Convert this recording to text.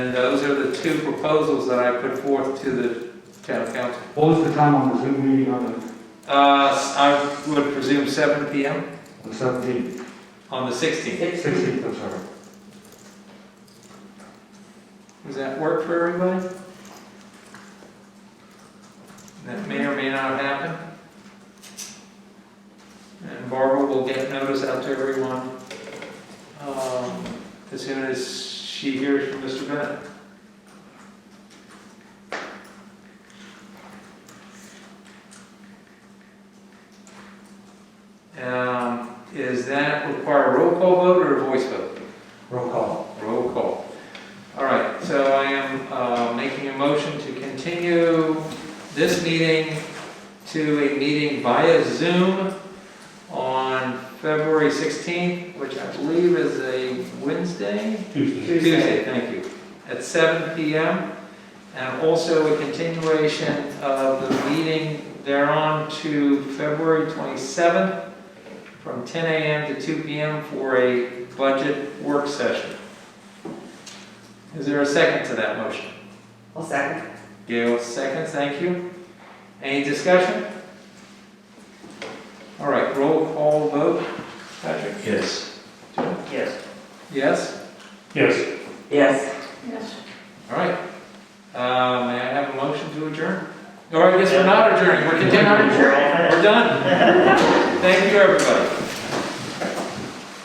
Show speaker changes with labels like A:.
A: are the two proposals that I put forth to the town council.
B: What was the time on the Zoom meeting on the-
A: Uh, I would presume seven PM
B: on the seventeenth,
A: on the sixteenth.
B: sixteenth, I'm sorry?
A: Does that work for everybody? That may or may not happen. And Barbara will get notice out to everyone, um, as soon as she hears from Mr. Bennett. Um, is that require a roll call vote or a voice vote?
B: Roll call.
A: Roll call. All right, so I am uh, making a motion to continue this meeting to a meeting via Zoom on February 16th, which I believe is a Wednesday?
B: Tuesday.
A: Tuesday, thank you, at 7 PM. And also a continuation of the meeting thereon to February 27th from 10 AM to 2 PM for a budget work session. Is there a second to that motion?
C: I'll second.
A: Gail seconds, thank you. Any discussion? All right, roll call vote. Patrick?
D: Yes.
C: Yes.
A: Yes?
B: Yes.
C: Yes.
A: All right. Uh, May I have a motion to adjourn? Or I guess we're not adjourning, we're continuing. We're done. Thank you, everybody.